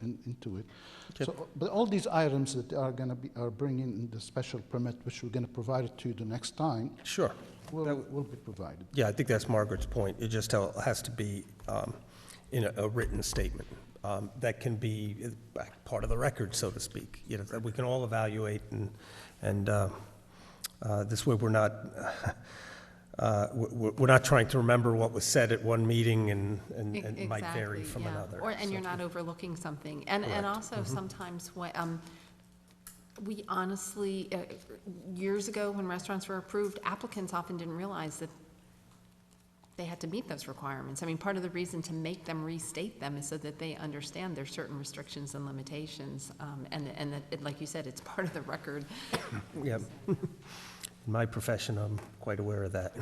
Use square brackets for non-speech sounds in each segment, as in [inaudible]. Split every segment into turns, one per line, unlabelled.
in, into it.
Okay.
So, but all these items that are going to be, are bringing in the special permit, which we're going to provide it to you the next time,
Sure.
will, will be provided.
Yeah, I think that's Margaret's point. It just how- has to be um, in a- a written statement um, that can be uh, back- part of the record, so to speak, you know, that we can all evaluate and, and uh, uh, this way we're not, [laughs] uh, we- we- we're not trying to remember what was said at one meeting and, and and it might vary
E-, Exactly,
from
yeah.
another.
Or, and
So-
you're not overlooking something. And, and also
Mm-hmm.
sometimes what, um, we honestly, uh, years ago, when restaurants were approved, applicants often didn't realize that they had to meet those requirements. I mean, part of the reason to make them restate them is so that they understand there's certain restrictions and limitations. Um, and, and that, it- like you said, it's part of the record.
Yep. [laughs] In my profession, I'm quite aware of that.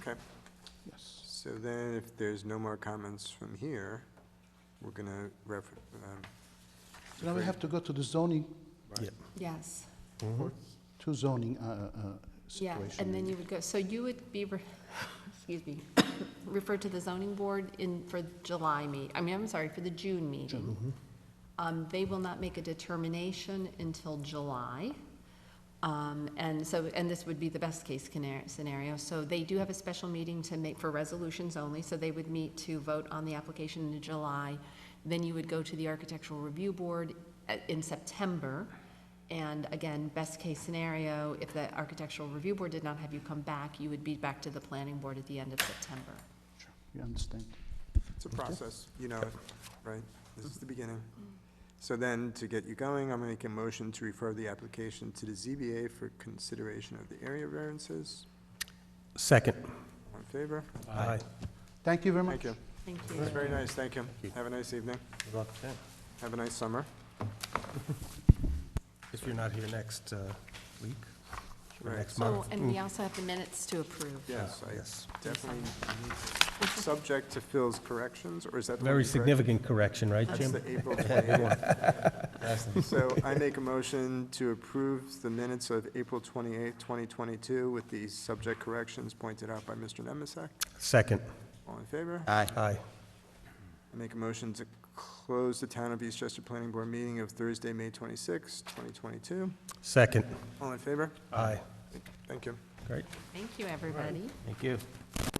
Okay,
Yes.
so then if there's no more comments from here, we're gonna refer, um,
So now we have to go to the zoning,
Yeah.
Yes.
to zoning uh, uh,
Yeah,
situation.
and then you would go, so you would be, re- [coughs] excuse me, [coughs] referred to the zoning board in, for July meet, I mean, I'm sorry, for the June meeting. Um, they will not make a determination until July. Um, and so, and this would be the best-case scenario. So they do have a special meeting to make for resolutions only, so they would meet to vote on the application in July. Then you would go to the Architectural Review Board uh, in September. And again, best-case scenario, if the Architectural Review Board did not have you come back, you would be back to the Planning Board at the end of September.
Sure, You understand?
it's a process, you know it, right? This is the beginning. So then, to get you going, I'm gonna make a motion to refer the application to the ZBA for consideration of the area variances.
Second.
All in favor?
Aye.
Thank you very much.
Thank you.
Thank you.
That's very nice, thank you. Have a nice evening.
Good luck.
Have a nice summer.
If you're not here next uh, week, or
Right.
next
Oh,
month.
and
Mm.
we also have the minutes to approve.
Yes, I
Yes.
definitely, need- subject to Phil's corrections, or is that the one
Very
you corrected?
significant correction, right,
That's
Jim?
the April 28th. [laughs] So I make a motion to approve the minutes of April 28th, 2022, with the subject corrections pointed out by Mr. Nemisak.
Second.
All in favor?
Aye. Aye.
I make a motion to close the Town of Eastchester Planning Board meeting of Thursday, May 26th, 2022.
Second.
All in favor?
Aye.
Thank you.
Great.
Thank you, everybody.
Thank you.